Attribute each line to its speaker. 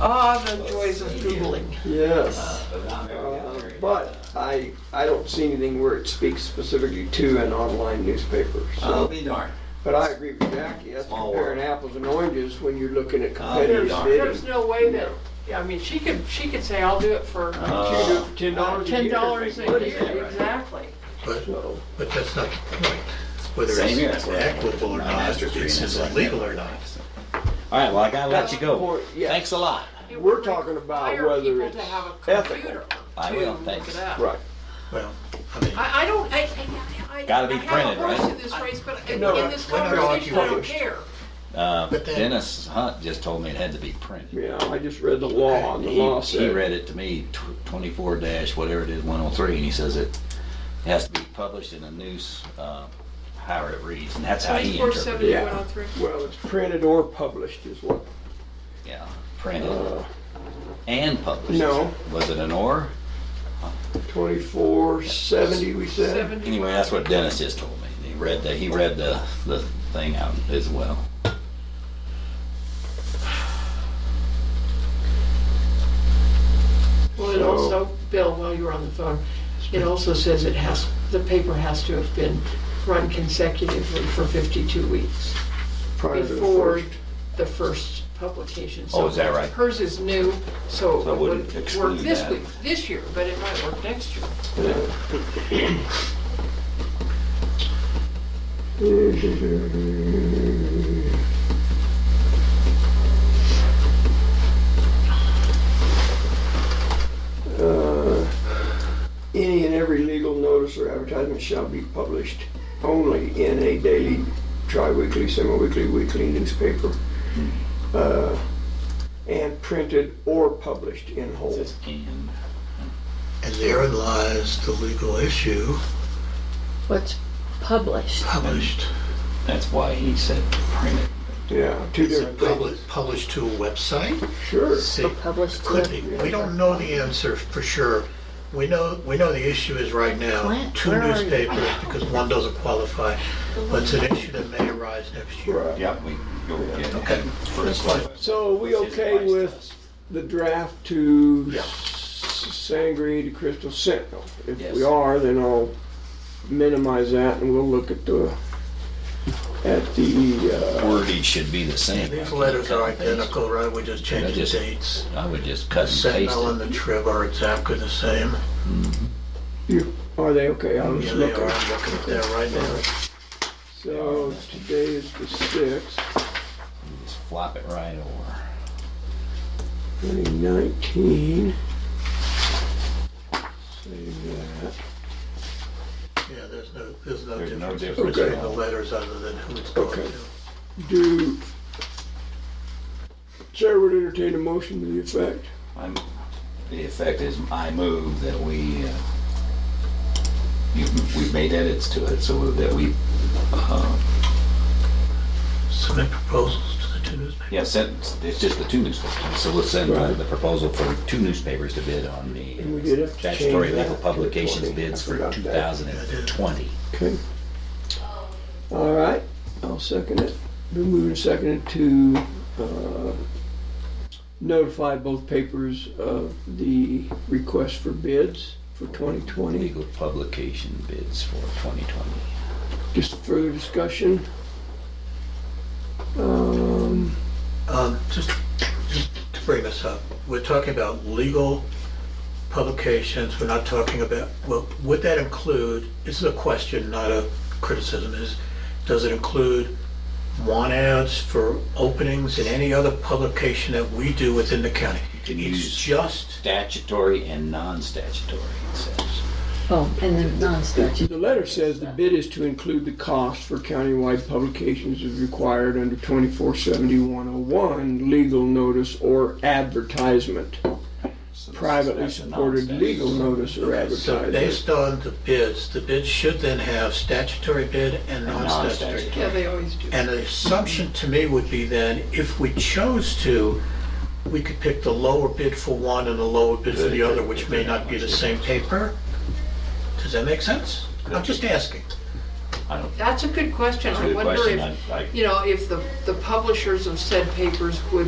Speaker 1: Ah, the joys of Googling.
Speaker 2: Yes. Uh, But I, I don't see anything where it speaks specifically to an online newspaper.
Speaker 3: I'll
Speaker 4: Oh.
Speaker 2: So,
Speaker 4: um,
Speaker 3: be darned.
Speaker 2: but I agree with Jackie, that's
Speaker 3: Small
Speaker 2: comparing
Speaker 3: world.
Speaker 2: apples and oranges when you're looking
Speaker 4: Oh,
Speaker 2: at
Speaker 3: I'll be
Speaker 2: competitive
Speaker 3: darned.
Speaker 2: bidding.
Speaker 1: There's no way that, yeah, I mean, she could, she could say, I'll do it for
Speaker 2: You
Speaker 4: Uh,
Speaker 2: do it for ten dollars a year.
Speaker 1: ten dollars a
Speaker 2: What is it?
Speaker 1: year, exactly.
Speaker 5: But,
Speaker 2: So,
Speaker 5: but that's not the point, whether
Speaker 3: Same here, that's
Speaker 5: it's
Speaker 3: what I-
Speaker 5: equitable or
Speaker 3: my
Speaker 5: not,
Speaker 3: master's
Speaker 5: if
Speaker 3: degree
Speaker 5: it's
Speaker 3: is like
Speaker 5: illegal
Speaker 3: that.
Speaker 5: or not.
Speaker 4: All right, well, I gotta let you go.
Speaker 2: Or- yeah.
Speaker 4: Thanks a lot.
Speaker 1: It
Speaker 2: We're
Speaker 1: would
Speaker 2: talking about
Speaker 1: require
Speaker 2: whether
Speaker 1: people
Speaker 2: it's
Speaker 1: to have a
Speaker 2: ethical.
Speaker 1: computer
Speaker 4: I
Speaker 1: to
Speaker 4: will,
Speaker 1: look
Speaker 4: thanks.
Speaker 1: it up.
Speaker 2: Right.
Speaker 5: Well, I mean,
Speaker 1: I, I don't, I, I, I.
Speaker 4: Gotta be
Speaker 1: I have
Speaker 4: printed,
Speaker 1: a horse
Speaker 4: right?
Speaker 1: in this race, but in
Speaker 2: No,
Speaker 1: in this
Speaker 5: we're not
Speaker 1: conversation, I don't
Speaker 2: arguing.
Speaker 1: care.
Speaker 4: Uh,
Speaker 5: But then-
Speaker 4: Dennis Hunt just told me it had to be printed.
Speaker 2: Yeah, I just read the law, and the law
Speaker 4: He- He
Speaker 2: said,
Speaker 4: read it to me, tw- twenty-four dash, whatever it is, one oh three, and he says it has to be published in a news, uh, however it reads, and that's how he
Speaker 1: Twenty-four
Speaker 4: interpreted
Speaker 1: seventy,
Speaker 4: it.
Speaker 2: Yeah.
Speaker 1: one oh three.
Speaker 2: well, it's printed or published is what,
Speaker 4: Yeah, printed
Speaker 2: uh,
Speaker 4: and published.
Speaker 2: No.
Speaker 4: Was it an or?
Speaker 2: twenty-four seventy, we said?
Speaker 1: Seventy.
Speaker 4: Anyway, that's what Dennis just told me. He read the, he read the, the thing out as well.
Speaker 1: Well, it
Speaker 2: So-
Speaker 1: also, Bill, while you were on the phone, it also says it has, the paper has to have been run consecutively for 52 weeks
Speaker 2: Prior to the
Speaker 1: before
Speaker 2: first.
Speaker 1: the first publication.
Speaker 4: Oh, is that
Speaker 1: So
Speaker 4: right?
Speaker 1: Hers is new, so
Speaker 4: So I
Speaker 1: it
Speaker 4: wouldn't
Speaker 1: would work
Speaker 4: exclude
Speaker 1: this
Speaker 4: that.
Speaker 1: week, this year, but it might work next year.
Speaker 2: Uh, Uh, Any and every legal notice or advertisement shall be published only in a daily, tri-weekly, semi-weekly, weekly newspaper, uh, and printed or published in
Speaker 4: It
Speaker 2: whole.
Speaker 4: says and.
Speaker 5: and therein lies the legal issue,
Speaker 6: what's published.
Speaker 5: published,
Speaker 4: That's why he said printed.
Speaker 2: Yeah, two
Speaker 5: is
Speaker 2: different
Speaker 5: it
Speaker 2: things.
Speaker 5: published, published to a website?
Speaker 2: Sure.
Speaker 5: See,
Speaker 6: published to
Speaker 5: could
Speaker 6: a-
Speaker 5: be, we don't know the answer for sure. We know, we know the issue is right now,
Speaker 6: Clint,
Speaker 5: two
Speaker 6: where are you?
Speaker 5: newspapers, because one doesn't qualify, but it's an issue that may arise next year.
Speaker 2: Right.
Speaker 4: Yep, we go get it.
Speaker 5: Okay.
Speaker 4: First one.
Speaker 2: So we
Speaker 4: His
Speaker 2: okay
Speaker 4: advice to
Speaker 2: with
Speaker 4: us.
Speaker 2: the draft to
Speaker 5: Yeah.
Speaker 2: Sangre de Crystal Sentinel? If
Speaker 4: Yes.
Speaker 2: we are, then I'll minimize that and we'll look at the, at the, uh,
Speaker 4: Wordage should be the same.
Speaker 5: These letters are identical, right? We just changed the
Speaker 4: just-
Speaker 5: dates.
Speaker 4: I would just cut and paste
Speaker 5: Sentinel and
Speaker 4: it.
Speaker 5: the Trib are exactly the same.
Speaker 2: you- are they okay? I'll
Speaker 5: Yeah,
Speaker 2: just
Speaker 5: they
Speaker 2: look
Speaker 5: are.
Speaker 2: at
Speaker 5: I'm looking at that right now.
Speaker 2: So today is the sixth,
Speaker 4: Just flop it right over.
Speaker 2: twenty nineteen. Save that.
Speaker 5: Yeah, there's no, there's no
Speaker 4: There's no
Speaker 5: difference
Speaker 4: difference
Speaker 2: at
Speaker 5: between the
Speaker 4: all.
Speaker 5: letters other than who it's going
Speaker 2: Okay.
Speaker 5: to.
Speaker 2: Do, Chair would entertain a motion to the effect.
Speaker 4: I'm, the effect is I move that we, uh, you, we've made edits to it so that we, uh,
Speaker 5: Submit proposals to the two newspapers.
Speaker 4: yeah, send, it's just the two newspapers. So we'll send
Speaker 2: Right.
Speaker 4: the proposal for two newspapers to bid on the
Speaker 2: And we did have to change
Speaker 4: statutory
Speaker 2: that
Speaker 4: legal
Speaker 2: to
Speaker 4: publications
Speaker 2: 20.
Speaker 4: bids
Speaker 2: I
Speaker 4: for
Speaker 2: forgot that.
Speaker 4: 2020.
Speaker 2: Okay. All right, I'll second it. Been moving and seconded to uh, notify both papers of the request for bids for 2020.
Speaker 4: Legal publication bids for 2020.
Speaker 2: Just further discussion? Um,
Speaker 5: Um, just, just to bring this up, we're talking about legal publications, we're not talking about, well, would that include, this is a question, not a criticism, is, does it include want ads for openings in any other publication that we do within the county?
Speaker 4: can
Speaker 5: It's
Speaker 4: use-
Speaker 5: just,
Speaker 4: Statutory and non-statutory, it says.
Speaker 6: Oh, and the non-statute.
Speaker 2: The letter says the bid is to include the cost for countywide publications as required under 247101 legal notice or advertisement.
Speaker 4: So this is-
Speaker 2: Privately
Speaker 4: that's a
Speaker 2: supported
Speaker 4: non-statutory.
Speaker 2: legal notice or
Speaker 5: so
Speaker 2: advertisement.
Speaker 5: based on the bids, the bids should then have statutory bid and non-statutory.
Speaker 4: non-statutory.
Speaker 1: Yeah, they always do.
Speaker 5: And the assumption to me would be then, if we chose to, we could pick the lower bid for one and the lower bid for the other, which may not be the same paper. Does that make sense? I'm just asking.
Speaker 4: I don't,
Speaker 1: That's a good question.
Speaker 4: that's a
Speaker 1: I
Speaker 4: good
Speaker 1: wonder
Speaker 4: question.
Speaker 1: if,
Speaker 4: I- I-
Speaker 1: you know, if the, the publishers of said papers would